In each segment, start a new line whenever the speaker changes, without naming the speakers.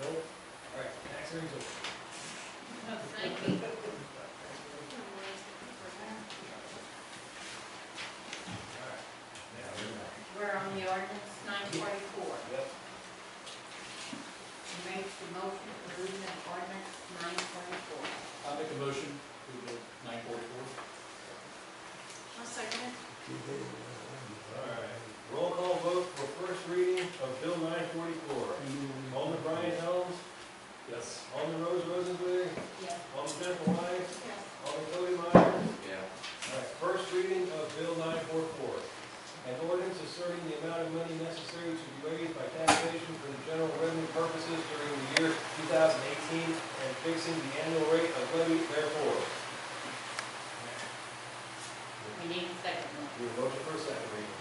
No? All right, tax hearing's over.
Thank you.
All right. Now, we're back.
We're on the ordinance nine forty-four.
Yep.
You make the motion for reading of ordinance nine forty-four.
I'll make a motion to the nine forty-four.
I'll second it.
All right. Roll call vote for first reading of Bill nine forty-four. Alderman Brian Helms,
Yes.
Alderman Rose Rosenberry,
Yes.
Alderman Jennifer Wise,
Yes.
Alderman Cody Meyer.
Yeah.
All right, first reading of Bill nine four four. An ordinance asserting the amount of money necessary to be raised by taxation for the general revenue purposes during the year two thousand eighteen and fixing the annual rate of levy therefore.
We need a second one.
Your motion for a second reading.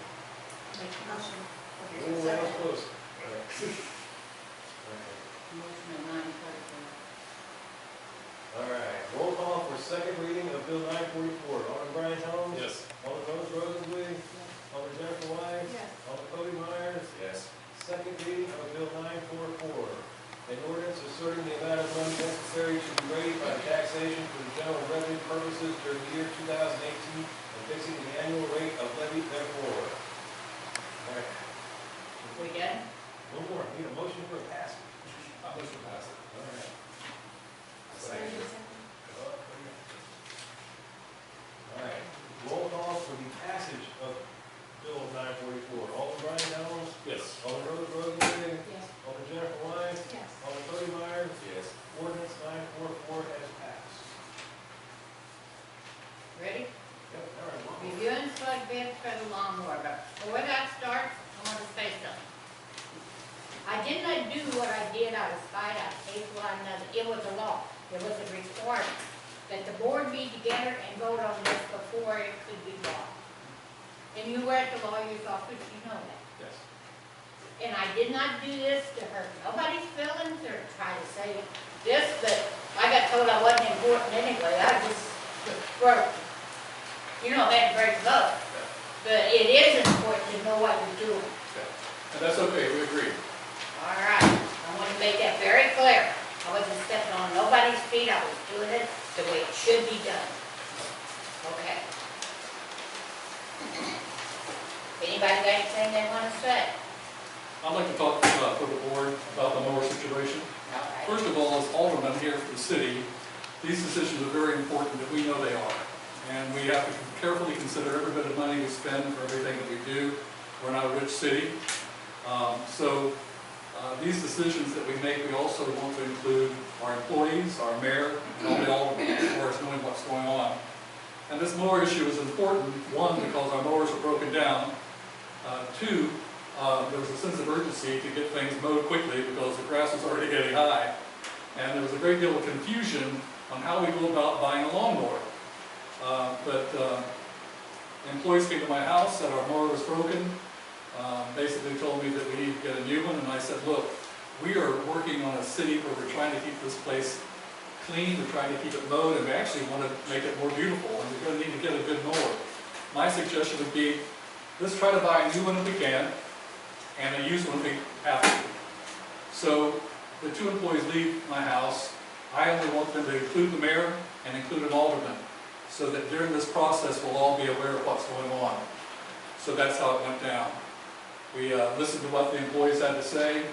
Make the motion.
Ooh, that was close. All right.
Motion of nine forty-four.
All right, roll call for second reading of Bill nine forty-four. Alderman Brian Helms.
Yes.
Alderman Rose Rosenbluth. Alderman Jennifer Wise.
Yes.
Alderman Cody Myers.
Yes.
Second reading of Bill nine four four, an ordinance asserting the amount of money necessary to be raised by taxation for the general revenue purposes during the year two thousand eighteen and fixing the annual rate of levy therefore. All right,
We good?
one more, need a motion for a pass.
I'll motion to pass it.
All right. All right, roll call for the passage of Bill nine forty-four. Alderman Brian Helms,
Yes.
Alderman Rose Rosenberg,
Yes.
Alderman Jennifer Wise,
Yes.
Alderman Cody Meyer,
Yes.
Ordinance nine four four has passed.
Ready?
Yep, all right, Mom.
Reviewing flood bids for the lawnmower, but before that starts, I want to say something. I did not do what I did out of spite, out of hate, well, another, it was a law, it was a requirement that the board be together and vote on this before it could be law. And you were at the lawyer's office, you know that.
Yes.
And I did not do this to hurt nobody's feelings or try to say this, but I got told I wasn't important anyway, I just broke. You know, that breaks up, but it is important to know what you're doing.
And that's okay, we agree.
All right, I want to make that very clear. I wasn't stepping on nobody's feet, I was doing it the way it should be done. Okay. Anybody got anything they want to say?
I'd like to talk, uh, for the board about the mower situation.
All right.
First of all, as aldermen here for the city, these decisions are very important, that we know they are. And we have to carefully consider every bit of money we spend for everything that we do. We're not a rich city. Um, So uh, these decisions that we make, we also want to include our employees, our mayor, and all the aldermen, as far as knowing what's going on. And this mower issue is important, one, because our mowers are broken down. Uh, Two, uh, there was a sense of urgency to get things mowed quickly because the grass was already getting high. And there was a great deal of confusion on how we go about buying a lawnmower. Uh, But uh, employees came to my house, said our mower was broken, uh, basically told me that we need to get a new one, and I said, look, we are working on a city where we're trying to keep this place clean, we're trying to keep it mowed, and we actually want to make it more beautiful, and we're going to need to get a good mower. My suggestion would be, let's try to buy a new one if we can, and a used one if we have to. So the two employees leave my house, I only want them to include the mayor and include an alderman, so that during this process, we'll all be aware of what's going on. So that's how it went down. We uh, listened to what the employees had to say.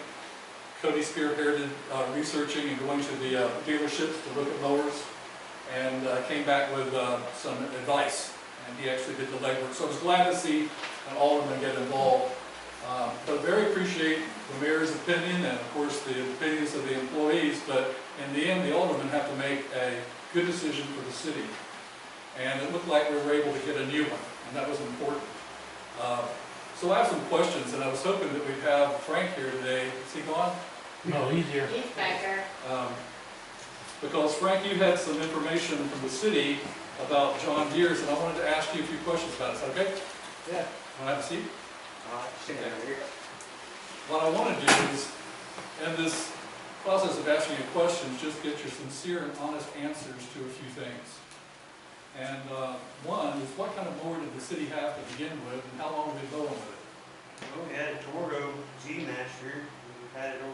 Cody spearheaded uh, researching and going to the uh, dealerships to look at mowers, and uh, came back with uh, some advice, and he actually did the legwork. So I was glad to see an alderman get involved. Um, But very appreciate the mayor's opinion and of course the opinions of the employees, but in the end, the aldermen have to make a good decision for the city. And it looked like we were able to get a new one, and that was important. Uh, So I have some questions, and I was hoping that we'd have Frank here today. Is he gone?
No, he's here.
He's back there.
Um, Because Frank, you had some information from the city about John Deere's, and I wanted to ask you a few questions about it. Is that okay?
Yeah.
Want to have a seat?
Uh, stand here.
What I want to do is, in this process of asking you questions, just get your sincere and honest answers to a few things. And uh, one is what kind of mower did the city have to begin with, and how long have they been mowing with it?
We had a Torgo G Master, we've had it over